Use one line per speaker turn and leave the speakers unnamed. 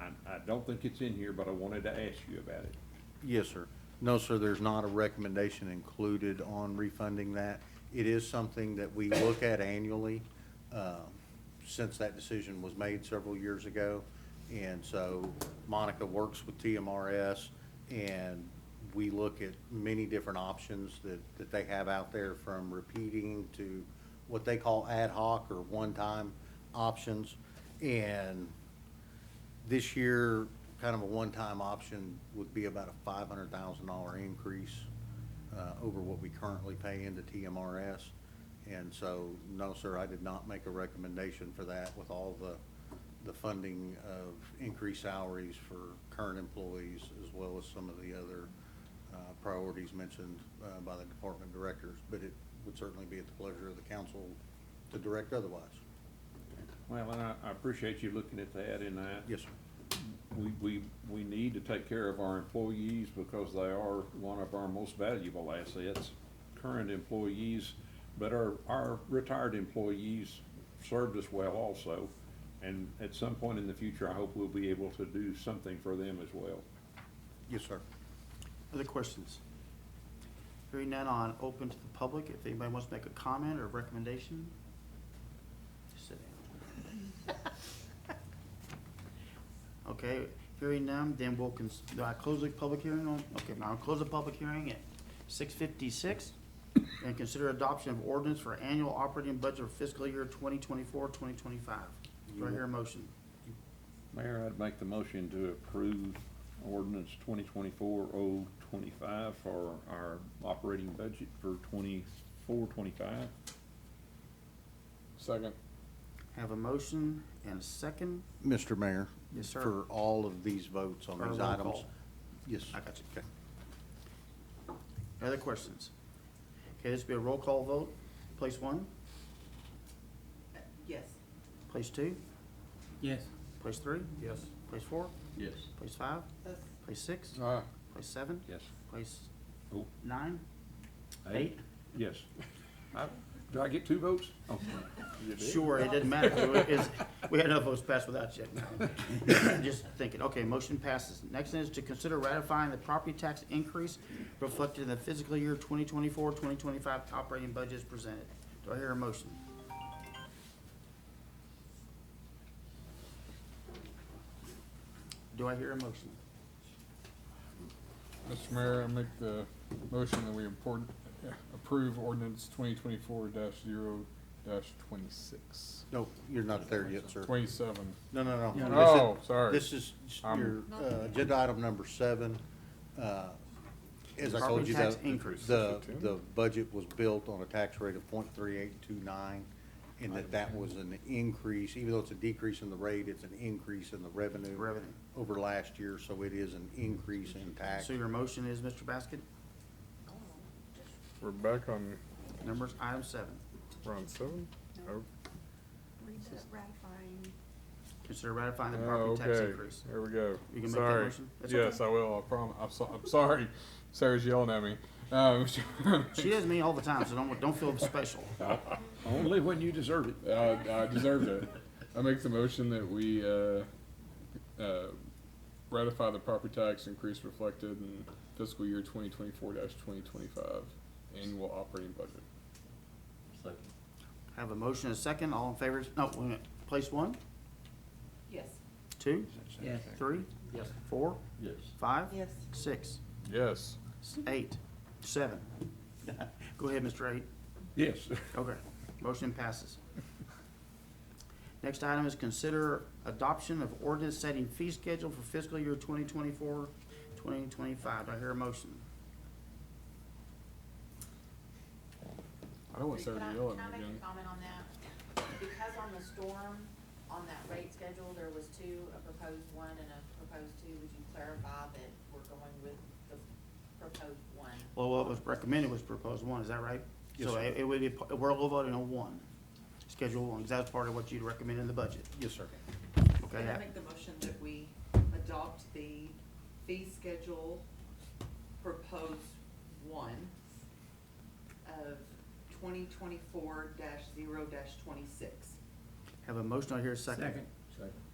I, I don't think it's in here, but I wanted to ask you about it.
Yes, sir. No, sir, there's not a recommendation included on refunding that. It is something that we look at annually, um, since that decision was made several years ago. And so Monica works with TMRS, and we look at many different options that, that they have out there, from repeating to what they call ad hoc or one-time options. And this year, kind of a one-time option would be about a five hundred thousand dollar increase uh, over what we currently pay into TMRS. And so, no, sir, I did not make a recommendation for that with all the, the funding of increased salaries for current employees as well as some of the other uh, priorities mentioned uh, by the department directors. But it would certainly be at the pleasure of the council to direct otherwise.
Well, and I, I appreciate you looking at that and I,
Yes, sir.
we, we, we need to take care of our employees because they are one of our most valuable assets. Current employees, but our, our retired employees served us well also. And at some point in the future, I hope we'll be able to do something for them as well.
Yes, sir.
Other questions? Hearing none on open to the public, if anybody wants to make a comment or recommendation, just sit down. Okay, hearing none, then we'll, cons- do I close the public hearing on, okay, now I'll close the public hearing at six fifty-six and consider adoption of ordinance for annual operating budget for fiscal year 2024-2025. Do I hear a motion?
Mayor, I'd make the motion to approve ordinance twenty twenty-four oh twenty-five for our operating budget for twenty-four, twenty-five.
Second.
Have a motion and a second?
Mr. Mayor?
Yes, sir.
For all of these votes on
Or
these
roll
items?
call.
Yes.
I got you.
Okay.
Other questions? Okay, this will be a roll call vote. Place one,
Uh, Yes.
place two,
Yes.
place three,
Yes.
place four,
Yes.
place five,
Yes.
place six,
Ah,
place seven,
Yes.
place
Oh.
nine, eight?
Yes. I- Do I get two votes? Oh,
Sure, it didn't matter. It was- is- We had enough votes passed without you. Just thinking, okay, motion passes. Next thing is to consider ratifying the property tax increase reflected in the fiscal year 2024-2025 operating budgets presented. Do I hear a motion? Do I hear a motion?
Mr. Mayor, I make the motion that we import, approve ordinance twenty twenty-four dash zero dash twenty-six.
No, you're not there yet, sir.
Twenty-seven.
No, no,
Yeah.
no.
Oh,
This is-
sorry.
This is your
I'm-
uh, agenda item number seven. Uh, As I told
Property
you,
tax
the,
increase.
the,
Fifteen.
the budget was built on a tax rate of point three eight two nine, and that that was an increase, even though it's a decrease in the rate, it's an increase in the revenue
Revenue.
over last year, so it is an increase in tax.
So your motion is, Mr. Basket,
We're back on,
numbers, item seven.
we're on seven? Oh,
Read that ratifying.
Consider ratifying the
oh,
property tax
okay.
increase.
There we go.
You can make that
Sorry.
motion? That's okay.
Yes, I will, I prom, I'm so, I'm sorry. Sarah's yelling at me. Um,
She does me all the time, so don't, don't feel special.
Only when you deserve it.
Uh, I deserved it. I make the motion that we uh, uh, ratify the property tax increase reflected in fiscal year 2024-2025 annual operating budget.
Have a motion and a second, all in favor, no, wait a minute. place one,
Yes.
two,
Yes.
three, four,
Yes.
five,
Yes.
six,
Yes.
s- eight, seven. Go ahead, Mr. Eight.
Yes.
Okay, motion passes. Next item is consider adoption of ordinance setting fee schedule for fiscal year 2024-2025. Do I hear a motion?
I don't want Sarah
Can
to
I,
yell
can I
at me
make
again.
a comment on that? Because on the storm, on that rate schedule, there was two, a proposed one and a proposed two, would you clarify that we're going with the proposed one?
Well, what was recommended was proposed one, is that right?
Yes,
So
sir.
it it would be, we're all voting on one, schedule one, because that's part of what you'd recommend in the budget.
Yes, sir.
Okay,
Can I
I-
make the motion that we adopt the fee schedule proposed one of twenty twenty-four dash zero dash twenty-six?
Have a motion, I hear a second.
Second.